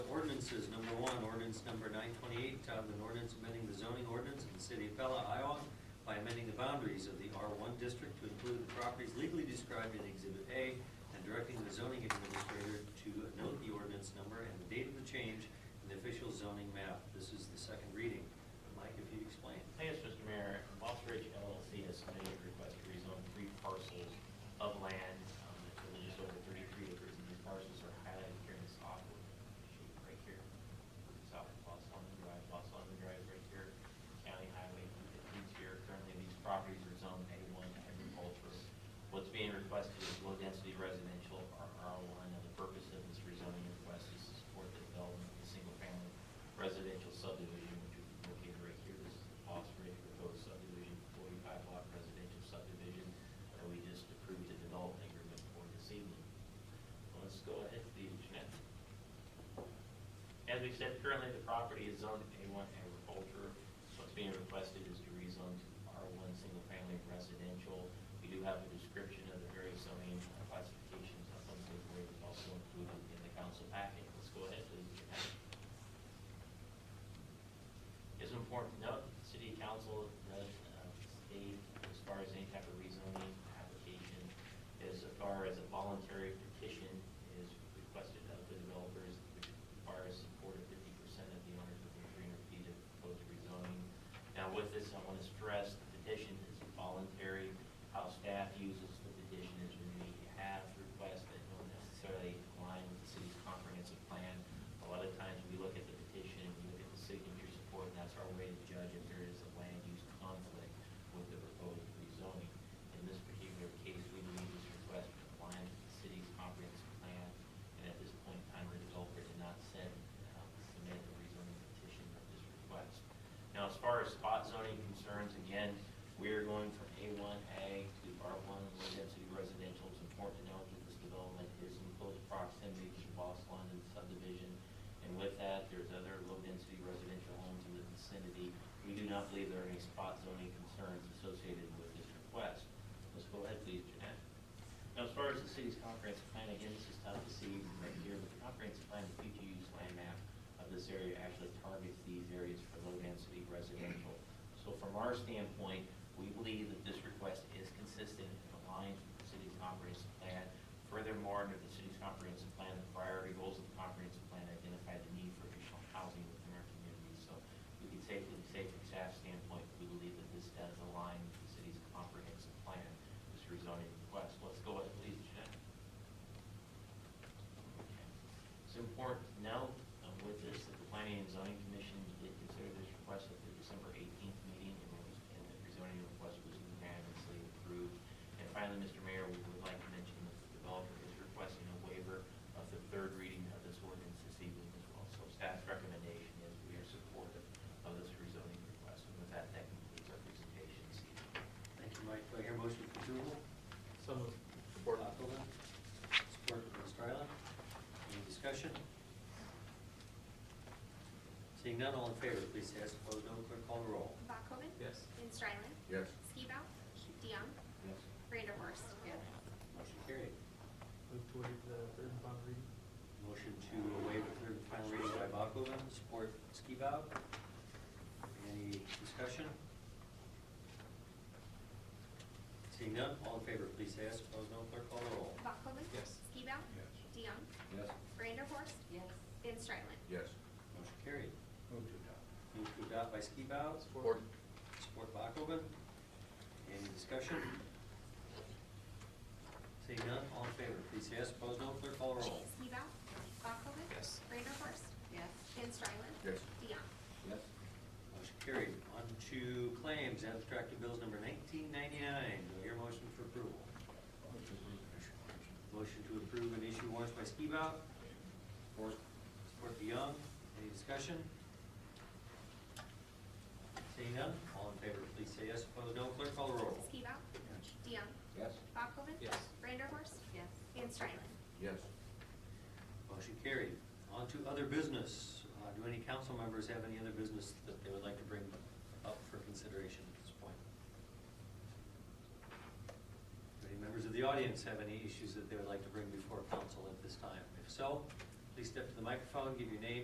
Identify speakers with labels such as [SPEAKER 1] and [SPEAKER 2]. [SPEAKER 1] ordinances, number one, ordinance number nine twenty-eight, titled an ordinance amending the zoning ordinance of the city of Pella, Iowa by amending the boundaries of the R one district to include the properties legally described in Exhibit A and directing the zoning administrator to note the ordinance number and the date of the change in the official zoning map. This is the second reading. Mike, if you'd explain.
[SPEAKER 2] Yes, Mr. Mayor, Moss Ridge LLC has submitted a request to rezone three parcels of land, um, that's just over thirty-three acres, and these parcels are highlighted here in this awkward shape right here. South of Los London Drive, Los London Drive right here, County Highway that leads here, currently these properties are zoned A one agricultural. What's being requested is low-density residential, or R one, and the purpose of this rezoning request is to support the development of a single-family residential subdivision, which is located right here. This is the Boss Ridge proposed subdivision, forty-five lot residential subdivision, that we just approved the development agreement for this evening. Let's go ahead to the agenda. As we said, currently the property is zoned A1 agriculture, so what's being requested is to rezone to R1 single family residential. We do have a description of the various zoning classifications of some of where it's also included in the council packet. Let's go ahead, please. It's important to note, the city council does uh, state, as far as any type of rezoning application, as far as a voluntary petition is requested of the developers, which requires support of fifty percent of the owners within three hundred feet of proposed rezoning. Now, with this, I want to stress, the petition is voluntary. How staff uses the petition is when we have requests that don't necessarily align with the city's comprehensive plan. A lot of times, we look at the petition, we look at the signature support, and that's our way to judge if there is a land use conflict with the proposed rezoning. In this particular case, we believe this request complies with the city's comprehensive plan, and at this point in time, the developer did not send, um, submit a rezoning petition of this request. Now, as far as spot zoning concerns, again, we are going from A1 A to R1 low density residential. It's important to note that this development is in close proximity to the Boss London subdivision. And with that, there's other low density residential homes in the vicinity. We do not believe there are any spot zoning concerns associated with this request. Let's go ahead, please, Jeanette. Now, as far as the city's comprehensive plan, again, this is tough to see right here, but the comprehensive plan, the future use land map of this area actually targets these areas for low-density residential. So from our standpoint, we believe that this request is consistent and aligns with the city's comprehensive plan. Furthermore, under the city's comprehensive plan, the priority goals of the comprehensive plan identify the need for additional housing within our community. So we can safely say from staff standpoint, we believe that this does align with the city's comprehensive plan, this rezoning request. Let's go ahead, please, Jeanette. It's important to note um, with this, that the Planning and Zoning Commission did consider this request at the December eighteenth meeting, and it was, and the zoning request was unanimously approved. And finally, Mr. Mayor, we would like to mention that the developer is requesting a waiver of the third reading of this ordinance this evening as well. So staff's recommendation is we are supportive of this rezoning request, and with that, that concludes our presentation this evening.
[SPEAKER 1] Thank you, Mike. Do I hear a motion for approval?
[SPEAKER 3] So moved.
[SPEAKER 1] Support. Support from Ms. Fryland. Any discussion? Seeing none, all in favor, please say yes. Opposed, no. Clerk call the roll.
[SPEAKER 4] Bachhoven.
[SPEAKER 3] Yes.
[SPEAKER 4] Van Strylen.
[SPEAKER 5] Yes.
[SPEAKER 4] Skibao. DeYoung.
[SPEAKER 2] Yes.
[SPEAKER 4] Vanderhorst.
[SPEAKER 1] Motion carried.
[SPEAKER 3] Move to waive the third and final reading.
[SPEAKER 1] Motion to waive the third and final reading by Bakoven, support Skibout. Any discussion? Seeing none, all in favor, please say yes. Opposed, no. Clerk call the roll.
[SPEAKER 4] Bachhoven.
[SPEAKER 3] Yes.
[SPEAKER 4] Skibao.
[SPEAKER 5] Yes.
[SPEAKER 4] DeYoung.
[SPEAKER 5] Yes.
[SPEAKER 4] Vanderhorst. Yes. Van Strylen.
[SPEAKER 5] Yes.
[SPEAKER 1] Motion carried.
[SPEAKER 5] Move to adopt.
[SPEAKER 1] Move to adopt by Skibout,
[SPEAKER 3] Support.
[SPEAKER 1] Support Bakoven. Any discussion? Seeing none, all in favor, please say yes, opposed no, clerk call the roll.
[SPEAKER 4] Skibao. Bachhoven.
[SPEAKER 3] Yes.
[SPEAKER 4] Vanderhorst.
[SPEAKER 6] Yes.
[SPEAKER 4] Van Strylen.
[SPEAKER 5] Yes.
[SPEAKER 4] DeYoung.
[SPEAKER 5] Yes.
[SPEAKER 1] Motion carried. On to claims, abstract of bills number nineteen ninety-nine, do I hear a motion for approval?
[SPEAKER 5] Move to approve and issue warrants.
[SPEAKER 1] Motion to approve and issue warrants by Skibout,
[SPEAKER 5] Support.
[SPEAKER 1] support DeYoung, any discussion? Seeing none, all in favor, please say yes, opposed no, clerk call the roll.
[SPEAKER 4] Skibao.
[SPEAKER 5] Yes.
[SPEAKER 4] DeYoung.
[SPEAKER 5] Yes.
[SPEAKER 4] Bachhoven.
[SPEAKER 3] Yes.
[SPEAKER 4] Vanderhorst.
[SPEAKER 6] Yes.
[SPEAKER 4] Van Strylen.
[SPEAKER 5] Yes.
[SPEAKER 1] Motion carried. On to other business. Uh, Do any council members have any other business that they would like to bring up for consideration at this point? Do any members of the audience have any issues that they would like to bring before council at this time? If so, please step to the microphone, give your name